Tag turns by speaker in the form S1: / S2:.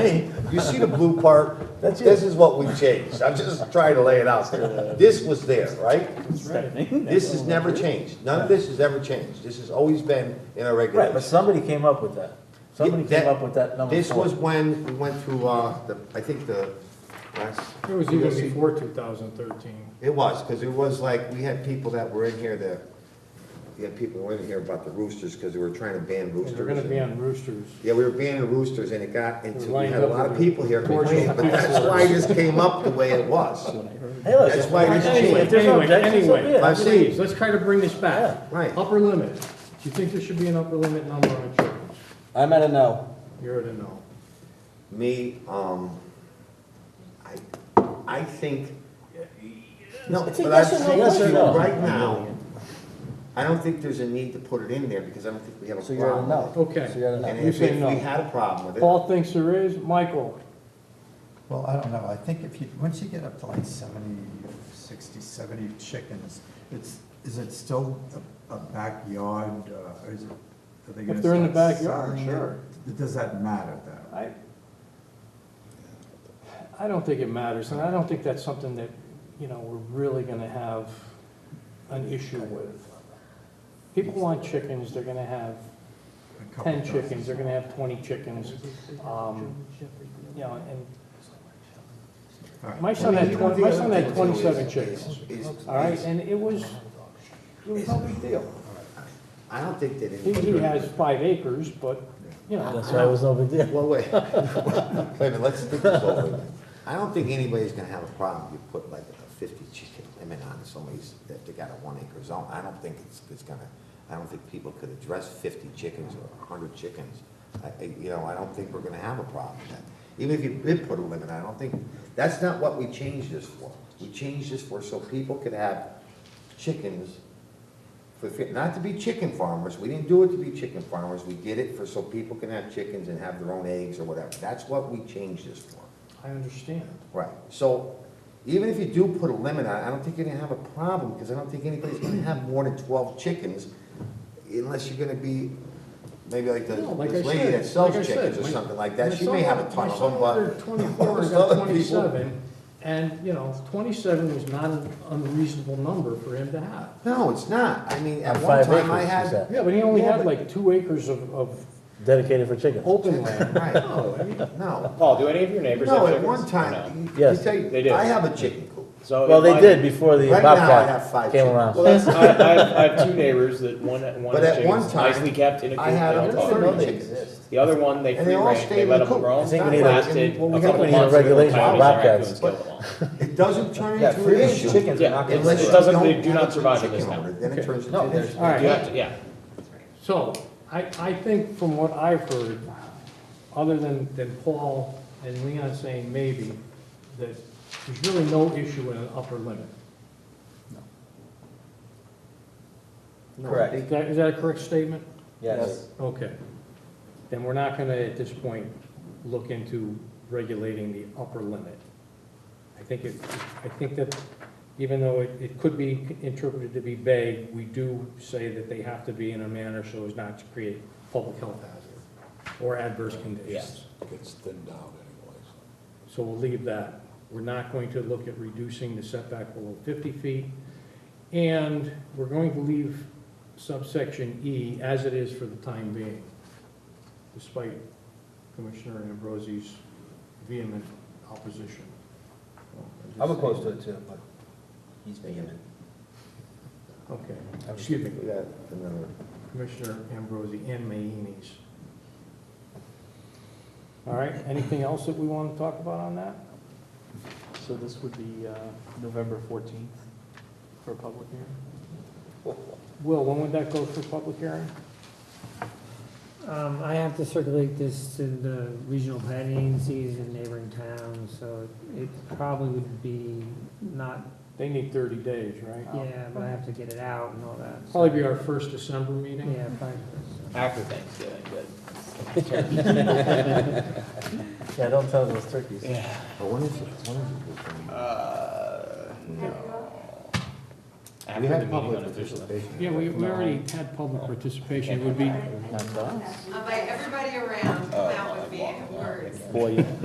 S1: Hey, you see the blue part?
S2: That's
S1: This
S2: it.
S1: is what we changed. I'm just trying to lay it out. This was there, right? This has never changed. None of this has ever changed. This has always been in our
S2: Right, but
S1: regulations.
S2: somebody came up with that. Somebody
S1: Yeah,
S2: came up with that number
S1: This
S2: four.
S1: was when we went through, uh, the, I think the last.
S3: It was even before 2013.
S1: It was, because it was like, we had people that were in here that, we had people who were in here about the roosters, because they were trying to ban roosters.
S3: They're gonna
S1: and-
S3: be on roosters.
S1: Yeah, we were banning roosters and it got into, we
S3: lined
S1: had a
S3: up
S1: lot of
S3: with
S1: people here complaining, but that's why this came up the way it was.
S2: Hey, look,
S1: That's why it's
S2: hey,
S3: Anyway,
S2: if there's no
S3: anyway,
S2: objections, so be
S3: anyway,
S2: it.
S1: I've seen-
S3: please, let's try to bring this
S2: Yeah,
S3: back.
S1: right.
S3: Upper limit. Do you think there should be an upper limit number on chickens?
S4: I'm at a no.
S3: You're at a no.
S1: Me, um, I, I think, no,
S2: It's a
S1: but I
S2: yes or no
S1: think
S2: question.
S1: you
S2: No.
S1: right now, I don't think there's a need to put it in there because I don't think we have a
S4: So you're at a
S1: problem.
S4: no.
S3: Okay.
S4: So you're at a
S1: And
S4: no.
S3: You
S1: if
S3: say
S1: if
S3: no.
S1: we had a problem with it.
S3: Paul thinks there is. Michael,
S5: Well, I don't know, I think if you, once you get up to like 70, 60, 70 chickens, it's, is it still a a backyard, uh, or is it, are they gonna?
S3: they're in the
S5: start
S3: backyard,
S5: selling it?
S3: sure.
S5: Does that matter though?
S3: I, I don't think it matters, and I don't think that's something that, you know, we're really gonna have an issue with. People want chickens, they're gonna have
S5: A couple
S3: ten
S5: dozen.
S3: chickens, they're gonna have twenty chickens, um, you know, and
S5: All right.
S3: my son had twenty, my son had twenty-seven chickens,
S1: Is-
S3: all right,
S1: is-
S3: and it was, it was no big deal.
S1: I don't think that. it-
S3: He, he has five acres, but, you know,
S2: That's why it was no big deal.
S1: Well, wait, wait a minute, let's think this over. I don't think anybody's gonna have a problem if you put like a fifty chicken limit on somebody's, that they got a one acre zone. I don't think it's, it's gonna, I don't think people could address fifty chickens or hundred chickens. I, I- you know, I don't think we're gonna have a problem with that. Even if you did put a limit, I don't think, that's not what we changed this for. We changed this for so people could have chickens for, fi- not to be chicken farmers, we didn't do it to be chicken farmers, we did it for so people can have chickens and have their own eggs or whatever. That's what we changed this for.
S3: I understand.
S1: Right. So even if you do put a limit on it, I don't think you're gonna have a problem, because I don't think anybody's gonna have more than twelve chickens unless you're gonna be, maybe like the,
S3: No, like I
S1: this lady
S3: said,
S1: that sells
S3: like I said,
S1: chickens or
S3: my-
S1: something like
S3: My
S1: that, she may
S3: son-
S1: have a ton
S3: my
S1: of
S3: son
S1: them,
S3: ordered
S1: but.
S3: Twenty-four, I
S1: most
S3: got
S1: other people-
S3: twenty-seven, and, you know, twenty-seven was not an unreasonable number for him to have.
S1: No, it's not. I mean, at
S2: On
S1: one
S2: five
S1: time I
S2: acres,
S1: had.
S2: she said.
S3: Yeah, but he only
S1: Yeah,
S3: had
S1: but-
S3: like two acres of, of
S2: Dedicated for chickens.
S3: open land.
S1: Right.
S3: No, I mean,
S1: No.
S6: Paul, do any of your neighbors have
S1: No, at
S6: chickens?
S1: one
S6: Or no?
S1: time, you- you
S2: Yes.
S1: tell you,
S6: They do.
S1: I have a chicken coop.
S6: So
S2: Well,
S6: in
S2: they
S6: my-
S2: did before the
S1: Right now, I have
S2: Bobcat
S1: five
S2: came
S1: chickens.
S2: around.
S6: Well, that's, I, I, have, I have two neighbors that one one
S1: But at
S6: chicken
S1: one
S6: is
S1: time,
S6: nicely kept in a coop.
S1: I had
S6: they
S1: up
S6: don't
S1: to
S6: talk.
S1: thirty chickens.
S6: The other one they
S1: And
S6: free
S1: they all
S6: range.
S1: stayed
S6: They
S1: in
S6: let
S1: the
S6: them
S1: coop.
S6: roam.
S1: I think
S2: we
S6: They
S2: need a-
S6: lasted
S1: well, we
S6: a
S1: have-
S6: couple
S1: we need a
S6: months. and then
S2: regulation
S6: Chinese
S2: about bobcats.
S6: raccoons killed them all.
S1: It doesn't turn
S4: Yeah,
S1: into an
S4: free-range
S1: issue.
S4: chickens are not
S1: unless
S6: It
S1: you
S6: doesn't-
S1: don't
S6: they do
S1: have
S6: not
S1: a
S6: survive in
S1: chicken
S6: this town.
S1: owner, Then it turns into
S4: No,
S1: an
S4: there's-
S1: issue.
S3: all
S6: You
S3: right,
S6: have to- yeah.
S3: so, I, I think from what I've heard, other than, than Paul and Leon saying maybe, that there's really no issue with an upper limit.
S1: No,
S4: Correct.
S1: they-
S3: Is that, is that a correct statement?
S4: Yes.
S3: Okay. Then we're not gonna, at this point, look into regulating the upper limit. I think it, I think that even though it, it could be interpreted to be vague, we do say that they have to be in a manner so as not to create public health hazard or adverse conditions.
S6: Yes.
S7: gets thinned out anyways.
S3: So we'll leave that. We're not going to look at reducing the setback below fifty feet. And we're going to leave subsection E as it is for the time being, despite Commissioner Ambrosi's vehement opposition.
S4: I'm opposed to it too, but he's vehement.
S3: Okay, excuse me,
S1: We got another-
S3: Commissioner Ambrosi and Mayines. All right, anything else that we want to talk about on that?
S8: So this would be uh, November 14th for a public hearing?
S3: Will, when would that go for public hearing?
S9: Um, I have to circulate this to the regional planning agencies and neighboring towns, so it probably would be not,
S3: They need thirty days, right?
S9: yeah, but I have to get it out and all that. so-
S3: Probably be our first December meeting.
S9: Yeah, probably. first.
S6: After Thanksgiving, good.
S2: Yeah, don't tell those turkeys.
S1: But when is it, when is it? this one?
S6: Uh, no.
S1: We
S6: After the
S1: had
S6: meeting
S1: public
S6: unofficially.
S1: participation.
S3: Yeah, we, we already had public participation, it would be,
S8: Not us.
S10: I'll invite everybody around, come out with me, words.
S8: boy